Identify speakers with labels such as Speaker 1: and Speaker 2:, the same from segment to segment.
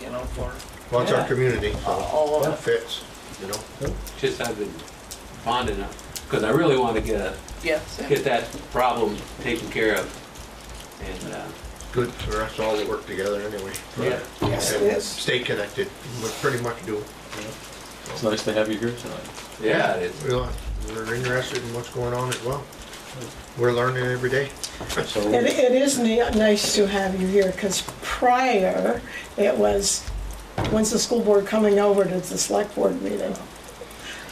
Speaker 1: you know, for,
Speaker 2: Well, it's our
Speaker 1: Yeah.
Speaker 2: community,
Speaker 1: All
Speaker 2: so
Speaker 1: of
Speaker 2: it
Speaker 1: it.
Speaker 2: fits, you know?
Speaker 3: just have been bonding up, because I really want to get a,
Speaker 1: yes. and-
Speaker 3: get that problem taken care of. And, uh,
Speaker 2: Good for us all to work together anyway.
Speaker 3: yeah,
Speaker 1: Yes, it
Speaker 2: And
Speaker 1: is.
Speaker 2: Stay connected, we pretty much do.
Speaker 4: It's nice to have you here tonight.
Speaker 3: yeah, it's,
Speaker 2: We are, we're interested in what's going on as well. We're learning every day.
Speaker 5: It,
Speaker 4: So,
Speaker 5: it is ni- nice to have you here, because prior, it was, when's the school board coming over to the select board meeting?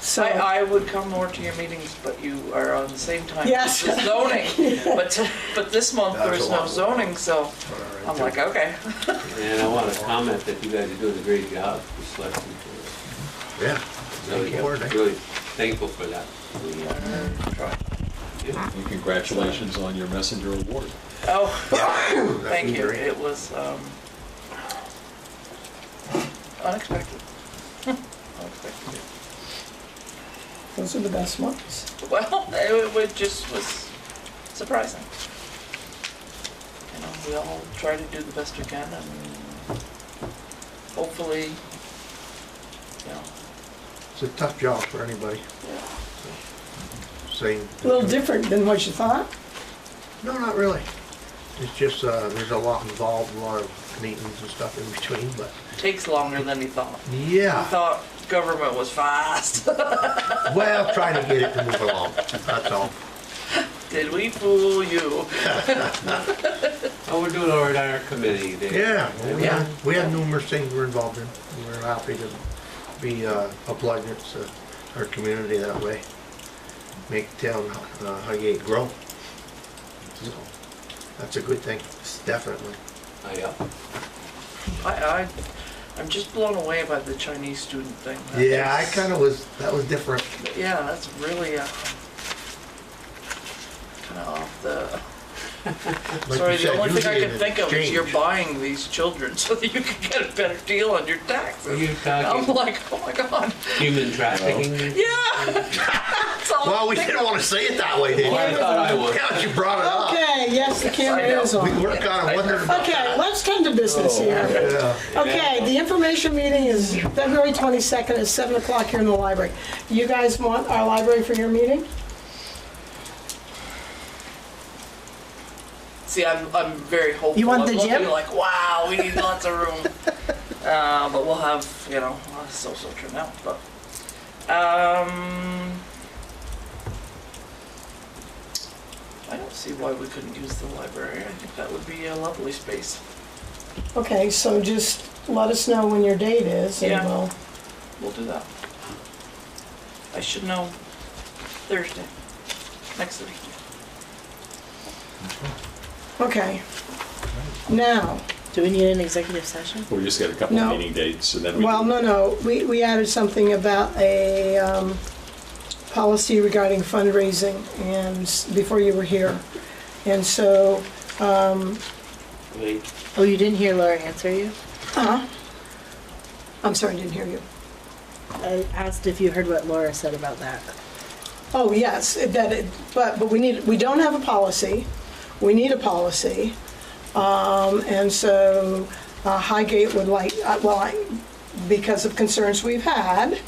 Speaker 5: So,
Speaker 1: I, I would come more to your meetings, but you are on the same time as
Speaker 5: Yes.
Speaker 1: the zoning. But, but this month,
Speaker 2: That's
Speaker 1: there's
Speaker 2: a
Speaker 1: no
Speaker 2: lot.
Speaker 1: zoning, so I'm like, okay.
Speaker 3: and I want to comment that you guys are doing a great job with selecting.
Speaker 2: Yeah.
Speaker 3: Really, really thankful for that. We, uh, try. Yeah.
Speaker 4: and congratulations on your messenger award.
Speaker 1: Oh, thank you.
Speaker 2: Great.
Speaker 1: It was, um, unexpected. Unexpected.
Speaker 5: those are the best ones.
Speaker 1: Well, it, wa- it just was surprising. You know, we all try to do the best we can and hopefully, you know,
Speaker 2: It's a tough job for anybody,
Speaker 1: yeah.
Speaker 2: same.
Speaker 5: A little different than what you thought?
Speaker 2: No, not really. It's just, uh, there's a lot involved, a lot of meetings and stuff in between, but,
Speaker 1: takes longer than he thought. He
Speaker 2: yeah.
Speaker 1: thought government was fast.
Speaker 2: Well, trying to get it to move along, that's all.
Speaker 1: Did we fool you?
Speaker 3: Oh, we're doing all right on our committee there.
Speaker 2: Yeah, well, we
Speaker 1: Yeah.
Speaker 2: had, we had numerous things we're involved in. We're happy to be uh, a plug into our community that way. Make town uh, Highgate grow. So, That's a good thing, definitely.
Speaker 3: Oh, yeah.
Speaker 1: I, I, I'm just blown away by the Chinese student thing. That
Speaker 2: Yeah, I
Speaker 1: is-
Speaker 2: kind of was, that was different.
Speaker 1: Yeah, that's really, uh, kind of off the,
Speaker 2: Like
Speaker 1: sorry,
Speaker 2: you
Speaker 1: the
Speaker 2: said,
Speaker 1: only thing I
Speaker 2: usually
Speaker 1: could
Speaker 2: an
Speaker 1: think of is you're
Speaker 2: exchange.
Speaker 1: buying these children so that you can get a better deal on your
Speaker 3: Are
Speaker 1: taxes.
Speaker 3: you
Speaker 1: I'm
Speaker 3: talking
Speaker 1: like, oh my god,
Speaker 3: human trafficking?
Speaker 1: yeah. That's all
Speaker 2: Well,
Speaker 1: I'm
Speaker 2: we
Speaker 1: thinking.
Speaker 2: didn't want to say it that way, did
Speaker 3: Well, I
Speaker 2: we?
Speaker 3: thought I would.
Speaker 2: Yeah, you brought it up.
Speaker 5: Okay, yes, the camera is
Speaker 2: We
Speaker 5: on.
Speaker 2: work on it, wonder.
Speaker 5: Okay, let's come to business
Speaker 1: Oh,
Speaker 5: here.
Speaker 2: Yeah.
Speaker 5: Okay, the information meeting is February 22nd at 7 o'clock here in the library. You guys want our library for your meeting?
Speaker 1: See, I'm, I'm very hopeful.
Speaker 5: You want
Speaker 1: I'm
Speaker 5: the
Speaker 1: looking
Speaker 5: gym?
Speaker 1: Like, wow, we need lots of room. uh, but we'll have, you know, well, it's so so true now. But um, I don't see why we couldn't use the library. I think that would be a lovely space.
Speaker 5: Okay, so just let us know when your date is, and
Speaker 1: Yeah.
Speaker 5: we'll
Speaker 1: We'll do that. I should know Thursday, next Thursday.
Speaker 5: Okay. Now,
Speaker 6: Do we need an executive session?
Speaker 4: We just got a couple of
Speaker 5: No.
Speaker 4: meeting dates and then we.
Speaker 5: well, no, no, we, we added something about a, um, policy regarding fundraising and, s- before you were here. And so, um,
Speaker 3: Wait.
Speaker 6: Oh, you didn't hear Laura answer you?
Speaker 5: uh, I'm sorry, I didn't hear you.
Speaker 6: I asked if you heard what Laura said about that.
Speaker 5: Oh, yes, it- that, it- but, but we need, we don't have a policy. We need a policy. Um, and so uh, Highgate would like, uh, well, I- because of concerns we've had,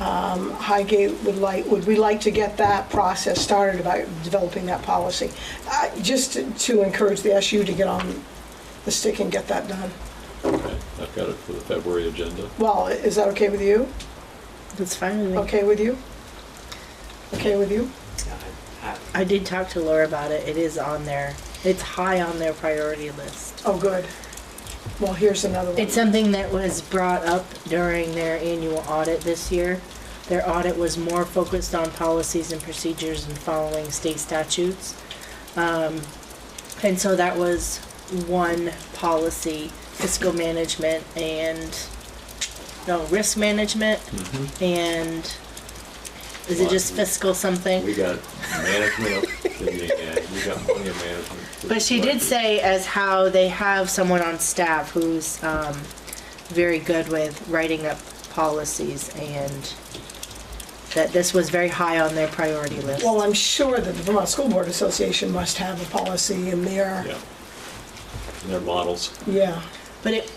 Speaker 5: um, Highgate would like, would we like to get that process started about developing that policy? Uh, Just to- to encourage the SU to get on the stick and get that done.
Speaker 4: Okay, I've got it for the February agenda.
Speaker 5: Well, is that okay with you?
Speaker 6: That's fine with me.
Speaker 5: Okay with you? Okay with you?
Speaker 3: I-
Speaker 6: I did talk to Laura about it. It is on their, it's high on their priority list.
Speaker 5: Oh, good. Well, here's another one.
Speaker 6: It's something that was brought up during their annual audit this year. Their audit was more focused on policies and procedures and following state statutes. Um, and so that was one policy, fiscal management and, no, risk management. and is it just fiscal something?
Speaker 4: We got management, of- we got plenty of management.
Speaker 6: But she did say as how they have someone on staff who's um, very good with writing up policies and that this was very high on their priority list.
Speaker 5: Well, I'm sure that the Vermont School Board Association must have a policy in there.
Speaker 4: Yeah. And Their models.
Speaker 5: Yeah.
Speaker 6: But it,